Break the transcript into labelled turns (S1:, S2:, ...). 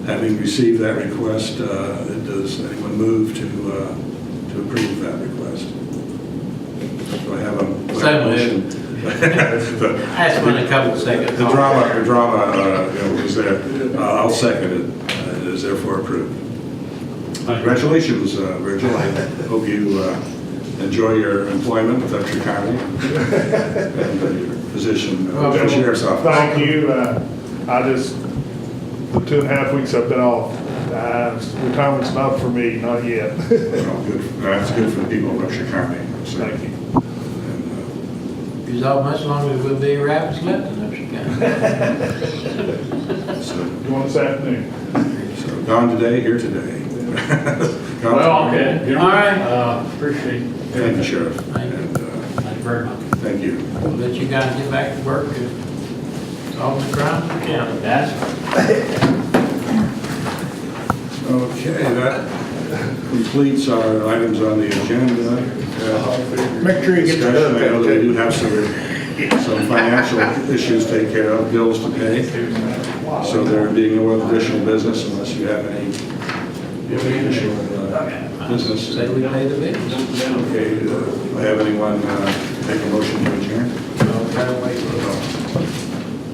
S1: Having received that request, uh, does anyone move to, uh, to approve that request? Do I have a?
S2: So
S1: motion?
S2: moved. That's been a couple of seconds.
S1: The drama, the drama uh, you know, was there. Uh, I'll second it. Uh, It is therefore approved. Congratulations, uh, Virgil. I hope you uh, enjoy your employment with Upshur County and uh, your position of the sheriff's office.
S3: Thank you. Uh, I just, the two and a half weeks I've been off, uh, retirement's not for me, not yet.
S1: Well, good- That's good for the people of Upshur County. so-
S3: Thank you.
S1: and, uh,
S2: It's all much longer than we'll be rabbits left in Upshur County.
S1: So,
S3: You want this afternoon?
S1: so gone today, here today. Gone
S4: Well,
S1: today.
S4: okay. you know,
S2: All right.
S4: uh, Appreciate
S1: Thank you,
S4: it.
S1: Sheriff.
S2: Thank you.
S1: And uh,
S4: Thank you very much.
S1: thank you.
S2: But you gotta get back to work and solve the crimes in the county.
S4: That's
S1: Okay, that completes our items on the agenda. Make sure you get the I know that we do have some, some financial issues to take care of, bills to pay. So there being no other additional business unless you have any, you have any additional uh, business.
S2: Say we pay the bills.
S1: Okay, uh, do I have anyone uh, make a motion to adjourn?
S2: No, gotta wait.
S1: No.